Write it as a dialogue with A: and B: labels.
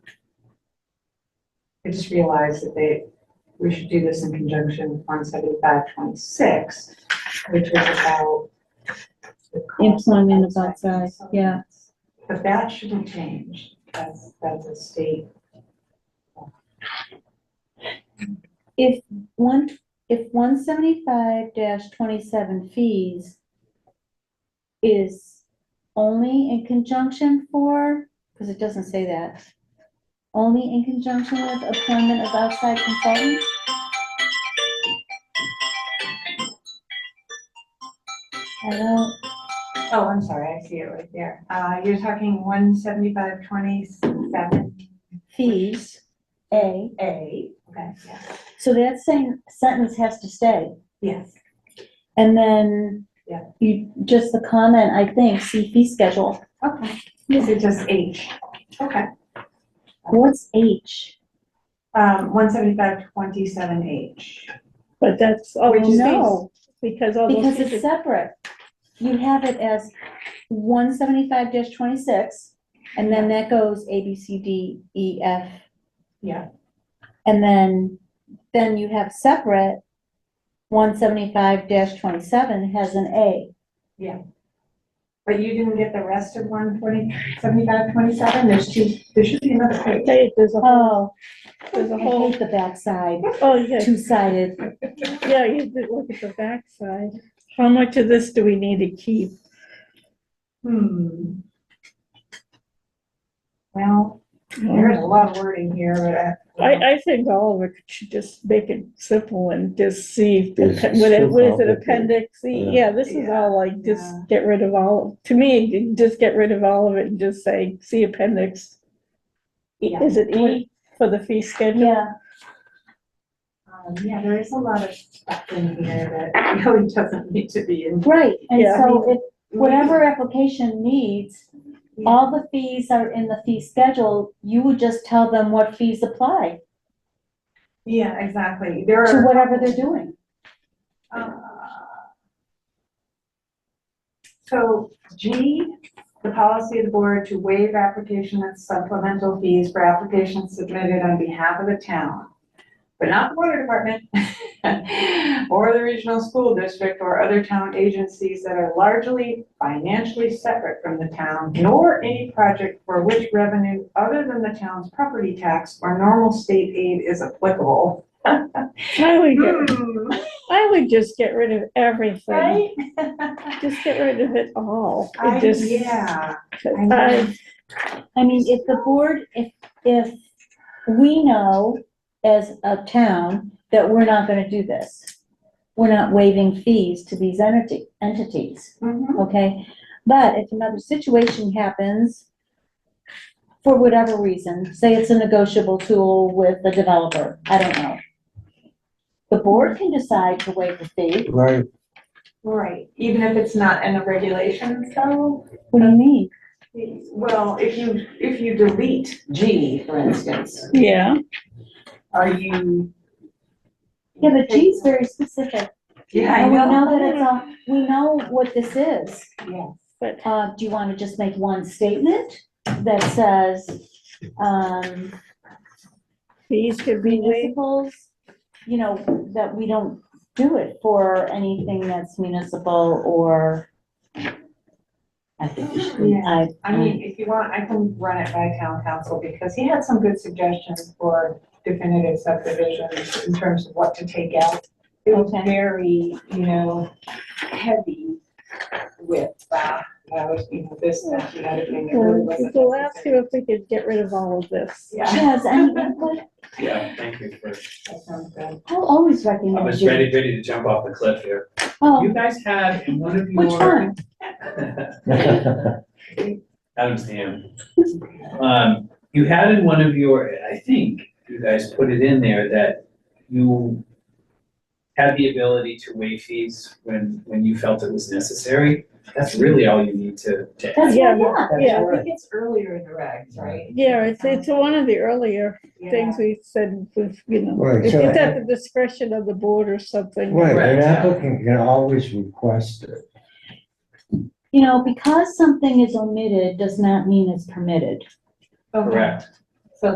A: I just realized that they, we should do this in conjunction with one seventy-five twenty-six, which is about. the cost of
B: Employment of outside,
A: consultants.
B: yeah.
A: But that shouldn't change, that's, that's a state,
B: If one, if one seventy-five twenty-seven fees is only in conjunction for, because it doesn't say that, only in conjunction with appointment of outside consultant? I don't,
A: oh, I'm sorry, I see it right there. Uh, you're talking one seventy-five twenty-seven
B: fees, A,
A: A, okay, yeah,
B: so that same sentence has to stay.
A: yes,
B: And then
A: Yeah.
B: you, just the comment, I think, see fee schedule.
A: okay. This is just H, okay.
B: What's H?
A: Um, one seventy-five twenty-seven H.
C: But that's, oh,
A: Which is
C: no, because all Oh, those
B: Because
C: things
B: it's
C: are-
B: separate. You have it as one seventy-five twenty-six, and then that goes A, B, C, D, E, F.
A: Yeah.
B: And then, then you have separate, one seventy-five twenty-seven has an A.
A: But you didn't get the rest of one twenty, seventy-five, twenty-seven, there's two, there should be another page.
C: Okay, there's
A: Uh,
C: a,
B: Oh, I
C: there's a whole,
B: hate the backside,
C: oh, yeah,
B: two-sided.
C: yeah, you have to look at the backside. How much of this do we need to keep?
A: Hmm. Well, there's a lot of wording here, but uh, I.
C: I, I think all of it should just make it simple and just see, if the-
D: It's
C: what it,
D: too
C: what is it,
D: complicated.
C: appendix? E?
D: Yeah.
C: Yeah, this is all like, just
A: Yeah.
C: get rid of all, to me, you just get rid of all of it and just say, see appendix. E-
A: Yeah.
C: Is it E for the fee schedule?
B: Yeah.
A: Um, yeah, there is a lot of stuff in here that really doesn't need to be in.
B: Right, and
C: Yeah.
B: so if, whatever application needs, all the fees are in the fee schedule, you would just tell them what fees apply
A: Yeah, exactly, there
B: to
A: are.
B: whatever they're doing.
A: Uh, So G, the policy of the board to waive application and supplemental fees for applications submitted on behalf of the town, but not the water department or the regional school district or other town agencies that are largely financially separate from the town, nor any project for which revenue other than the town's property tax or normal state aid is applicable.
C: I would, get-
A: Hmm,
C: I would just get rid of everything.
A: Right?
C: Just get rid of it all.
A: I,
C: It just,
A: yeah. I know.
C: I,
B: I mean, if the board, if, if we know as a town that we're not gonna do this, we're not waiving fees to these entity, entities,
A: Mhm.
B: okay? But if another situation happens, for whatever reason, say it's a negotiable tool with the developer, I don't know. The board can decide to waive the fee.
D: Right,
A: Right, even if it's not in the regulations though?
B: What do you mean?
A: Well, if you, if you delete G, for instance,
C: yeah,
A: are you?
B: Yeah, but G's very specific.
A: Yeah, I
B: And we
A: know.
B: know that it's all, we know what this is.
A: Yes.
C: but
B: Uh, do you wanna just make one statement that says, um,
C: fees could be waived.
B: municipals, you know, that we don't do it for anything that's municipal or I think we should,
A: Yeah.
B: I,
A: I mean, if you want, I can run it by town council because he had some good suggestions for definitive subdivisions in terms of what to take out. It was
B: Okay.
A: very, you know, heavy with that, that was, you know, this, that, and the other thing. It really wasn't
C: We'll ask
A: necessary.
C: you if we could get rid of all of this.
A: Yeah.
B: Chaz, any input?
E: Yeah, thank you for,
A: That sounds good.
B: I'll always
E: I
B: recommend
E: was
B: you.
E: ready, ready to jump off the cliff here.
B: Oh,
E: You guys had in one of your.
B: which one?
E: Adam's the end. Um, you had in one of your, I think you guys put it in there that you had the ability to waive fees when, when you felt it was necessary. That's really all you need to, to
B: That's,
C: Yeah,
B: yeah, yeah,
C: Yeah.
A: I think it's earlier in the regs, right?
C: Yeah, it's, it's one of the earlier
A: Yeah.
C: things we said, with, you know,
D: Right,
C: if
D: so-
C: it's at the discretion of the board or something.
D: right, an
E: Correct.
D: applicant can always request it.
B: you know, because something is omitted does not mean it's permitted.
A: Okay.
E: correct.